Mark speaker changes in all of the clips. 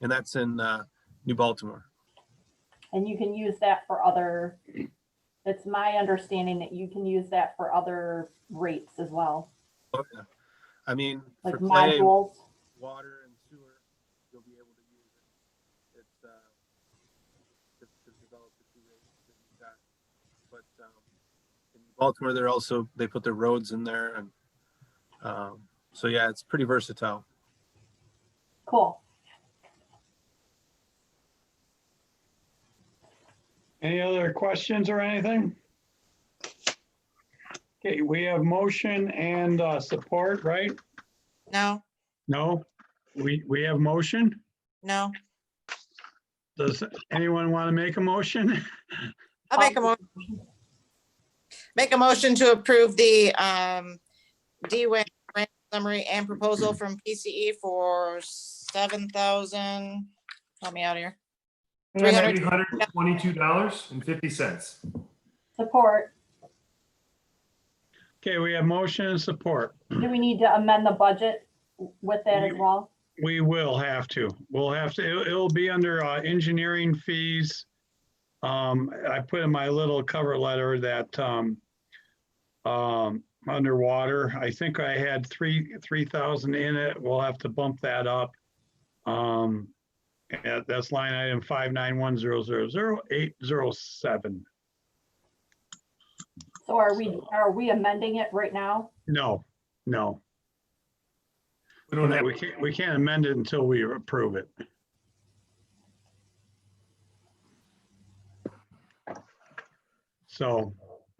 Speaker 1: and that's in uh, New Baltimore.
Speaker 2: And you can use that for other, it's my understanding that you can use that for other rates as well,
Speaker 1: Oh, yeah. I mean,
Speaker 2: like
Speaker 1: for clay,
Speaker 2: modules.
Speaker 1: water, and sewer, you'll be able to use it. It's uh, to, to develop the two rates that you got. But um, in Baltimore, they're also they put their roads in there, and um, so yeah, it's pretty versatile.
Speaker 2: Cool.
Speaker 3: Any other questions or anything? Okay, we have motion and uh, support, right?
Speaker 4: No,
Speaker 3: No, we, we have motion.
Speaker 4: no.
Speaker 3: Does anyone want to make a motion?
Speaker 4: I'll make a mo- make a motion to approve the um D-Wing grant summary and proposal from PCE for seven thousand, help me out here.
Speaker 5: Three hundred twenty-two dollars and fifty cents.
Speaker 2: Support.
Speaker 3: Okay, we have motion and support.
Speaker 2: Do we need to amend the budget with that as
Speaker 3: You-
Speaker 2: well?
Speaker 3: We will have to. We'll have to, it'll- it'll be under uh, engineering fees. Um, I put in my little cover letter that um, um, underwater, I think I had three, three thousand in it. We'll have to bump that up. Um, and that- that's line item five nine one zero zero zero eight zero seven.
Speaker 2: So are we, are we amending it right now?
Speaker 3: No, no,
Speaker 5: We don't have,
Speaker 3: we can't, we can't amend it until we approve it. So,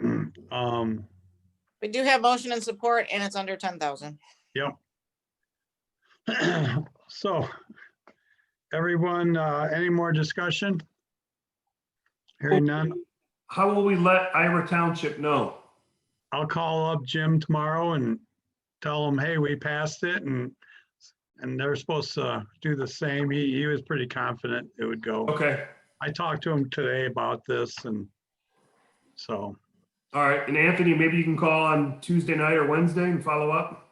Speaker 3: um,
Speaker 4: We do have motion and support and it's under ten thousand.
Speaker 3: so, everyone, uh, any more discussion? Hearing none,
Speaker 5: how will we let Ira Township know?
Speaker 3: I'll call up Jim tomorrow and tell him, hey, we passed it and, and they're supposed to do the same. He, he was pretty confident it would go.
Speaker 5: Okay,
Speaker 3: I talked to him today about this and so,
Speaker 5: all right. And Anthony, maybe you can call on Tuesday night or Wednesday and follow up.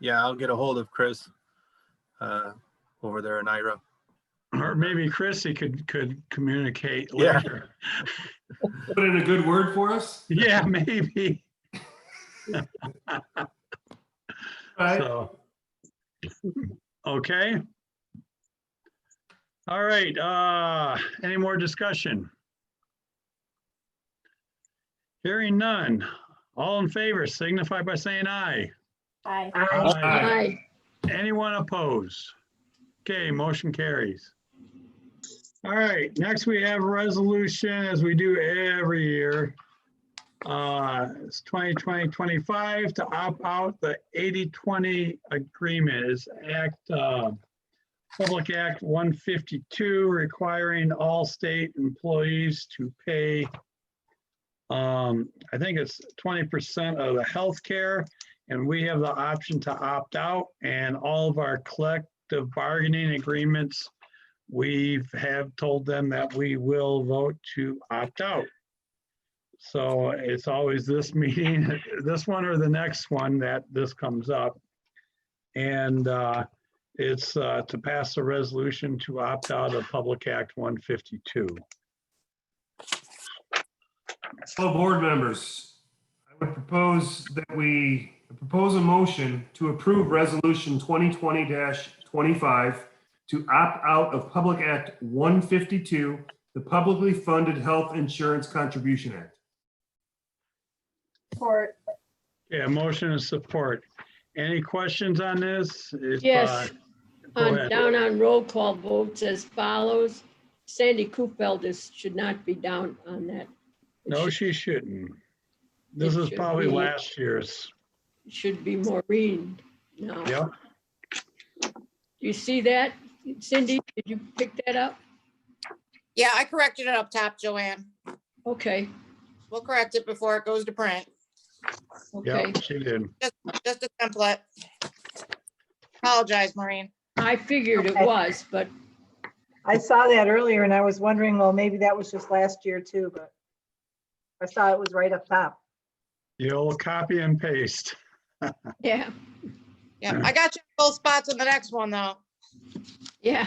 Speaker 1: Yeah, I'll get a hold of Chris uh, over there in Ira.
Speaker 3: or maybe Chrissy could, could communicate
Speaker 1: Yeah.
Speaker 3: later.
Speaker 5: Put in a good word for us.
Speaker 3: Yeah, maybe.
Speaker 5: All right.
Speaker 3: So. Okay. All right, uh, any more discussion? Hearing none. All in favor signify by saying aye.
Speaker 2: Aye.
Speaker 5: Aye.
Speaker 6: Aye.
Speaker 3: Anyone opposed? Okay, motion carries. All right, next we have resolution, as we do every year. Uh, It's 2020-25 to opt out the 80-20 agreement is Act, uh, Public Act 152 requiring all state employees to pay, um, I think it's 20% of the healthcare and we have the option to opt out and all of our collective bargaining agreements, we have told them that we will vote to opt out. So it's always this meeting, this one or the next one that this comes up. And uh, it's uh, to pass a resolution to opt out of Public Act 152.
Speaker 5: Hello, board members. I would propose that we propose a motion to approve Resolution 2020-25 to opt out of Public Act 152, the Publicly Funded Health Insurance Contribution Act.
Speaker 2: Support.
Speaker 3: Yeah, motion and support. Any questions on this? If,
Speaker 6: Yes.
Speaker 3: uh, go
Speaker 6: On,
Speaker 3: ahead.
Speaker 6: down on roll call votes as follows. Sandy Kupel is, should not be down on that. It
Speaker 3: No,
Speaker 6: should-
Speaker 3: she shouldn't. This
Speaker 6: It
Speaker 3: is
Speaker 6: should
Speaker 3: probably
Speaker 6: be-
Speaker 3: last year's.
Speaker 6: Should be Maureen now.
Speaker 3: Yep.
Speaker 6: You see that? Cindy, did you pick that up?
Speaker 4: Yeah, I corrected it up top, Joanne.
Speaker 6: Okay,
Speaker 4: We'll correct it before it goes to print,
Speaker 6: okay.
Speaker 3: Yep, she did.
Speaker 4: just a template. Apologize, Maureen.
Speaker 6: I figured it
Speaker 7: Okay.
Speaker 6: was, but
Speaker 7: I saw that earlier and I was wondering, well, maybe that was just last year too, but I saw it was right up top.
Speaker 3: The old copy and paste.
Speaker 6: yeah,
Speaker 4: Yeah, I got you in both spots on the next one, though.
Speaker 6: yeah.